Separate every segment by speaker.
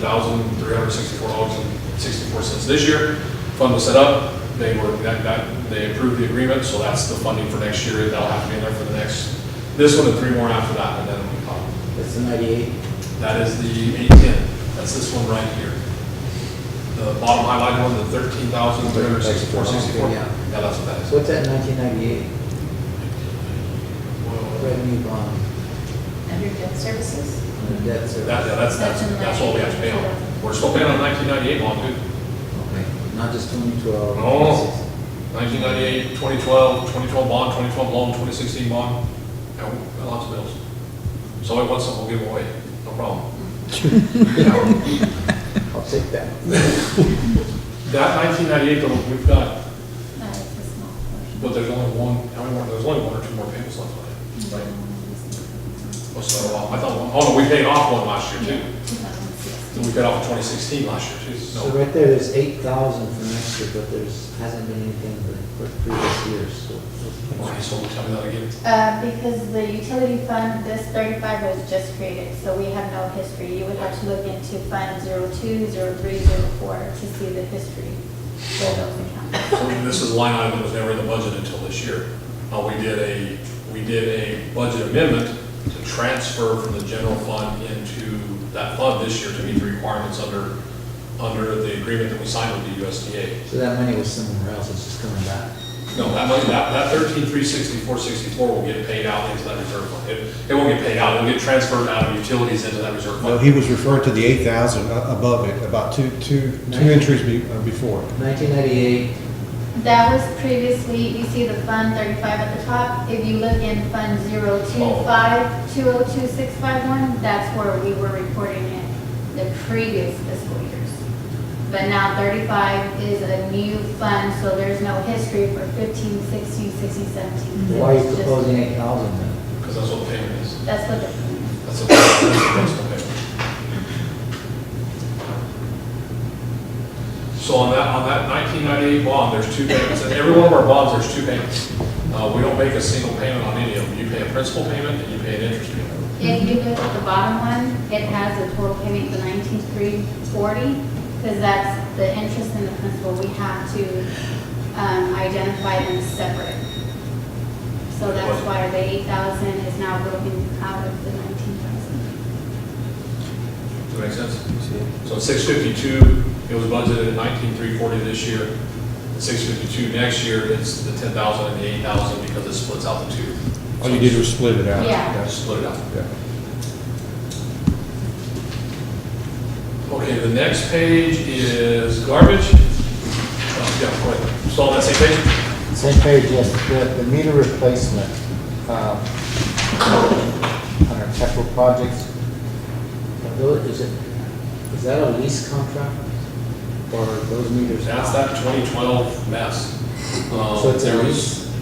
Speaker 1: thousand three hundred sixty-four dollars and sixty-four cents this year. Fund was set up, they were, that, that, they approved the agreement, so that's the funding for next year, that'll have to be in there for the next, this one and three more after that, and then we pop.
Speaker 2: That's the ninety-eight.
Speaker 1: That is the eight-ten, that's this one right here. The bottom highlighted one, the thirteen thousand three hundred sixty-four sixty-four,
Speaker 2: Yeah.
Speaker 1: yeah, that's what that is.
Speaker 2: What's that nineteen ninety-eight
Speaker 1: Well,
Speaker 2: revenue bond
Speaker 3: Under debt services?
Speaker 2: on debt service?
Speaker 1: That, yeah, that's, that's, that's what we have to pay on. We're still paying on nineteen ninety-eight bond, dude.
Speaker 2: Okay, not just twenty twelve.
Speaker 1: Oh. 1998, 2012, 2012 bond, 2012 loan, 2016 bond, Yeah, we got lots of bills. So I want some, we'll give them away, no problem.
Speaker 2: I'll take that.
Speaker 1: That 1998, though, we've got,
Speaker 3: No, it's a small portion.
Speaker 1: but there's only one, how many more, there's only one or two more payments left on it. Like, What's that, well, I thought, oh, no, we paid off one last year,
Speaker 3: Yeah,
Speaker 1: too. Then
Speaker 3: 2016.
Speaker 1: we paid off 2016 last year, too.
Speaker 2: So
Speaker 1: No,
Speaker 2: right there, there's eight thousand for next year, but there's, hasn't been anything for for previous years, so.
Speaker 1: okay, so tell me that again.
Speaker 3: Uh, because the utility fund, this thirty-five was just created, so we have no history. You would have to look into Fund zero-two, zero-three, zero-four to see the history for those accounts.
Speaker 1: So this is a line item that was never in the budget until this year. Uh, we did a, we did a budget amendment to transfer from the general fund into that fund this year to meet the requirements under, under the agreement that we signed with the USDA.
Speaker 2: So that money was somewhere else, it's just coming back.
Speaker 1: No, that money, that, that thirteen, three sixty-four, sixty-four will get paid out into that reserve fund. It, it won't get paid out, it'll get transferred out of utilities into that reserve
Speaker 4: No,
Speaker 1: fund.
Speaker 4: he was referring to the 8,000 a- above it, about two, two, two entries be- uh, before.
Speaker 2: Nineteen ninety-eight,
Speaker 3: That was previously, you see the Fund thirty-five at the top. If you look in Fund zero-two-five, two-oh-two-six-five-one, that's where we were reporting it the previous fiscal years. But now thirty-five is a new fund, so there's no history for 15, 16, 16, 17.
Speaker 2: why are you
Speaker 3: It's just-
Speaker 2: proposing eight thousand then?
Speaker 1: Because that's what the payment is.
Speaker 3: That's what the,
Speaker 1: That's a, that's a principal payment. So on that, on that nineteen ninety-eight bond, there's two payments, and every one of our bonds, there's two payments. Uh, we don't make a single payment on any of them, you pay a principal payment and you pay an interest payment.
Speaker 3: if you look at the bottom one, it has a total payment of nineteen-three forty, because that's the interest and the principal. We have to, um, identify them separate. So that's why the eight thousand is now broken out of the nineteen thousand.
Speaker 1: Does that make sense? So six fifty-two, it was budgeted at nineteen three forty this year, six fifty-two next year, it's the ten thousand and the eight thousand because it splits out the two.
Speaker 4: All Oh, you did was split it out.
Speaker 3: Yeah.
Speaker 1: Yeah, split it out.
Speaker 4: Yeah.
Speaker 1: Okay, the next page is garbage. Oh, Yeah, go ahead. Still on that same page?
Speaker 5: Same page, yes, the, the meter replacement, um, on our capital projects,
Speaker 2: Are those- Is it, is that a lease contract? Or are those meters?
Speaker 1: That's that 2012 mess. Um,
Speaker 5: So it's a
Speaker 1: there was-
Speaker 5: lease?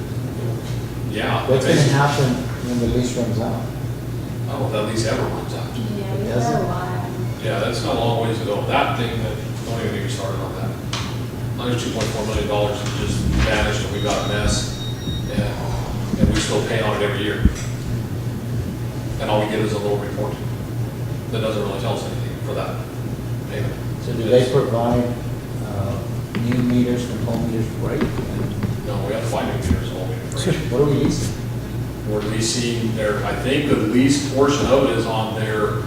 Speaker 1: Yeah.
Speaker 5: what's gonna
Speaker 1: basically.
Speaker 5: happen when the lease runs out?
Speaker 1: Oh, that lease ever runs out.
Speaker 3: Yeah, we have
Speaker 5: It
Speaker 3: a
Speaker 5: doesn't-
Speaker 3: lot.
Speaker 1: Yeah, that's not a long ways to go. That thing, that don't even get me started on that. Under $2.4 million dollars just vanished and we got a mess. And- And we still pay on it every year. And all we get is a little report that doesn't really tell us anything for that payment.
Speaker 5: So do they provide, uh, new meters from home meters, right?
Speaker 1: No, we have five new meters, all meters.
Speaker 5: What are we leasing?
Speaker 1: We're leasing their, I think the lease portion of it is on their,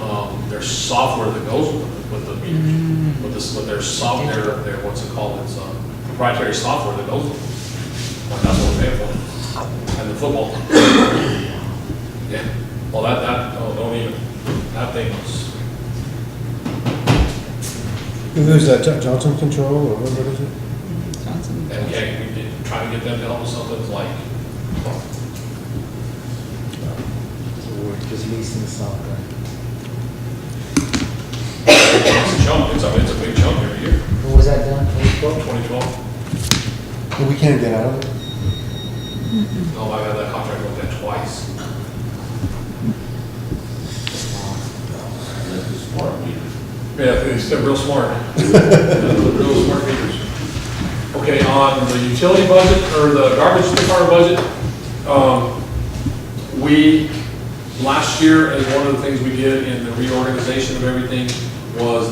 Speaker 1: um, their software that goes with, with the meters. With this, with their software, their, what's it called, it's um, proprietary software that goes with it. Well, That's what we're paying for. And the football. Yeah, well, that, that, oh, don't even, that thing was,
Speaker 4: Who's that, Jo- Johnson Control or what what is it?
Speaker 1: and yeah, we did try to get them to help us something it's like,
Speaker 5: So we're just leasing software.
Speaker 1: it's a chunk, it's, a- it's a big chunk every year,
Speaker 2: When was that done, twenty twelve?
Speaker 1: twenty twelve.
Speaker 4: Well, We can't get out of it.
Speaker 1: No, I've had that contract with them twice. Yeah, it's they're real smart. Real smart meters. Okay, on the utility budget, or the garbage department budget, um, we, last year, as one of the things we did in the reorganization of everything,